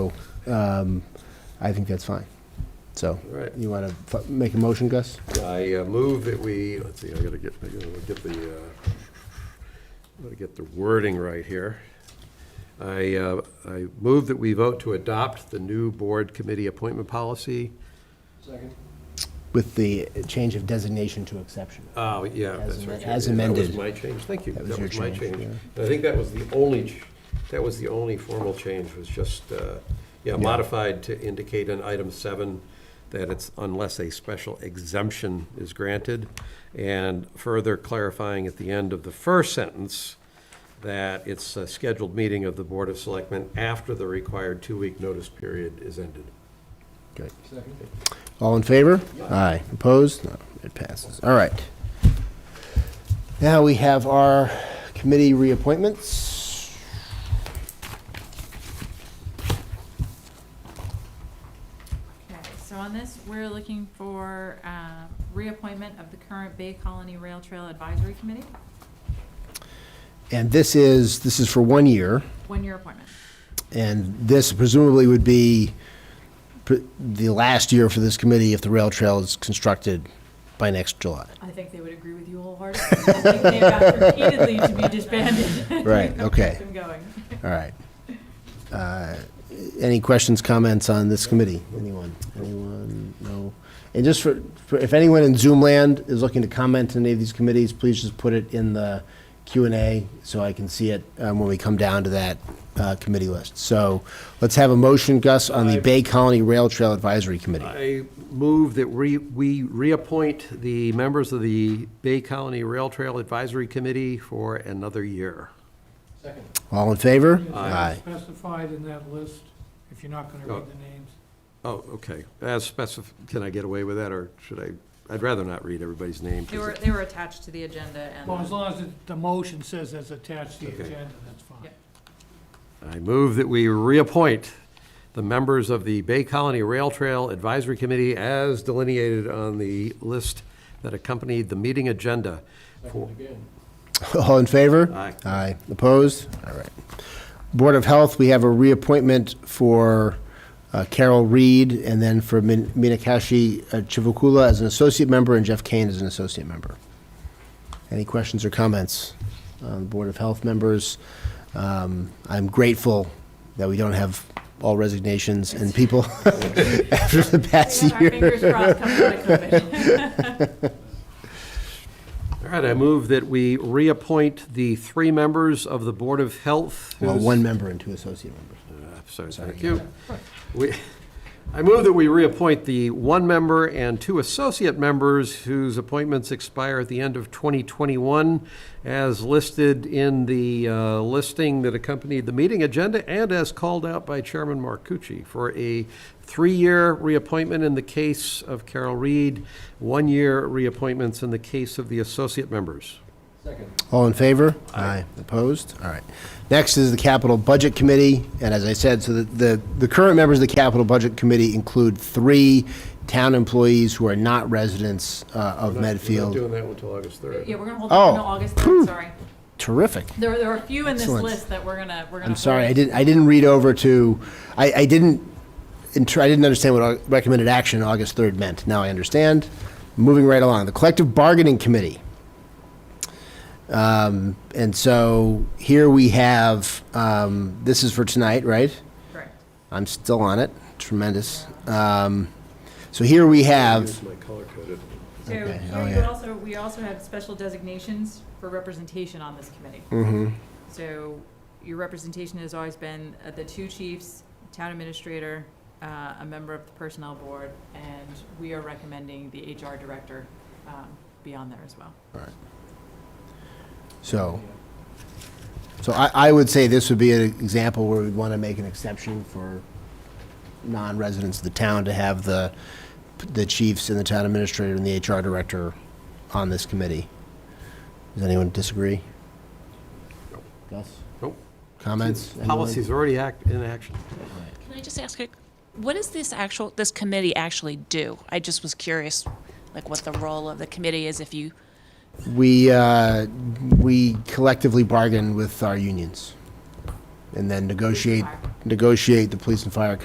um, I think that's fine. So, All right. you want to f- make a motion, Gus? I uh, move that we, let's see, I gotta get, I gotta get the, uh, I gotta get the wording right here. I, uh, I move that we vote to adopt the new board committee appointment policy. With the change of designation to exception. Oh, yeah, As that's amen- right. as That was amended. my change, thank you. That was That your was my change, change. yeah. I think that was the only, ch- that was the only formal change, was just, uh, yeah, modified to indicate in item seven that it's unless a special exemption is granted, and further clarifying at the end of the first sentence that it's a scheduled meeting of the Board of Selectmen after the required two-week notice period is ended. Great. All in favor? Aye. Opposed? No, it passes. All right. Now we have our committee reappointments. Okay, so on this, we're looking for um, reappointment of the current Bay Colony Rail Trail Advisory Committee, And this is, this is for one year, one-year appointment. and this presumably would be pr- the last year for this committee if the rail trail is constructed by next July. I think they would agree with you wholeheartedly. I think they've asked repeatedly to be disbanded. Right, okay. Keep them going. All right. Uh, Any questions, comments on this committee? Anyone? Anyone? No? And just for, for- if anyone in Zoom land is looking to comment on any of these committees, please just put it in the Q and A so I can see it um, when we come down to that uh, committee list. So let's have a motion, Gus, on the Bay Colony Rail Trail Advisory Committee. I move that we, we reappoint the members of the Bay Colony Rail Trail Advisory Committee for another year. Second. All in favor? Aye. Specified in that list, if you're not gonna read the names. Oh, okay. As specif, can I get away with that, or should I, I'd rather not read everybody's name. 'cause They were, it- they were attached to the agenda Well, as and, long as it- the motion says it's attached to Okay. the agenda, that's fine. Yep. I move that we reappoint the members of the Bay Colony Rail Trail Advisory Committee as delineated on the list that accompanied the meeting agenda. for- All in favor? Aye. Aye. Opposed? All right. Board of Health, we have a reappointment for uh, Carol Reed and then for Min- Minakashi uh, Chivukula as an associate member and Jeff Kane as an associate member. Any questions or comments on the Board of Health members? Um, I'm grateful that we don't have all resignations and people after the past we have our year. fingers crossed coming out of COVID. All right, I move that we reappoint the three members of the Board of Health. Well, whose- one member and two associate members. Uh, Sorry, thank you. We, I move that we reappoint the one member and two associate members whose appointments expire at the end of 2021 as listed in the uh, listing that accompanied the meeting agenda and as called out by Chairman Marcucci for a three-year reappointment in the case of Carol Reed, one-year reappointments in the case of the associate members. All in favor? Aye. Opposed? All right. Next is the Capital Budget Committee, and as I said, so the, the, the current members of the Capital Budget Committee include three town employees who are not residents uh, of Not Medfield. doing that one until August 3rd. Yeah, we're gonna hold on until Oh. August, third, sorry. Terrific. There, there are a few in this Excellent. list that we're gonna, we're gonna. I'm sorry, I hold. didn't, I didn't read over to, I, I didn't, inter- I didn't understand what au- recommended action August 3rd meant. Now I understand. Moving right along, the Collective Bargaining Committee. Um, And so here we have, um, this is for tonight, right? Correct. I'm still on it. Tremendous. Um, So here we have, Here's my color-coded. So Okay. here Oh, you yeah. also, we also have special designations for representation on this committee. Mm-hmm. So your representation has always been uh, the two chiefs, town administrator, uh, a member of the personnel board, and we are recommending the HR director um, be on there as well. so, so I, I would say this would be an example where we'd want to make an exception for non-residents of the town to have the, the chiefs and the town administrator and the HR director on this committee. Does anyone disagree? Gus? Nope. Comments? Anyone? Policy's already act, in action. Can I just ask, a- what does this actual, this committee actually do? I just was curious, like, what the role of the committee is if you, We, uh, we collectively bargain with our unions and then negotiate, negotiate the police and fire